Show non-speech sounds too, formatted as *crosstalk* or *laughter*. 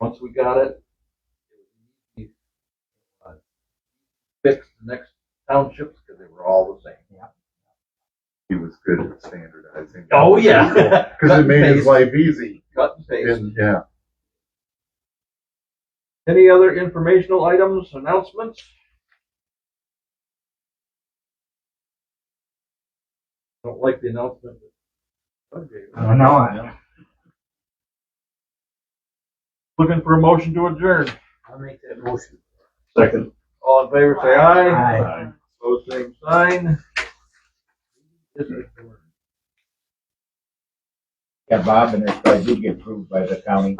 Once we got it, it was uh, fixed the next townships because they were all the same. Oh, He was good at standardizing. Oh, *laughs* yeah. Because it made his life easy. Cut and paste. And, yeah. Any other informational items, announcements? Don't like the announcement. Okay. Oh, no, I, Looking for a motion to adjourn. I'll make that motion. Second. All in favor, say aye. Aye. Pose same sign. This is Yeah, Bob, and if I do get approved by the county,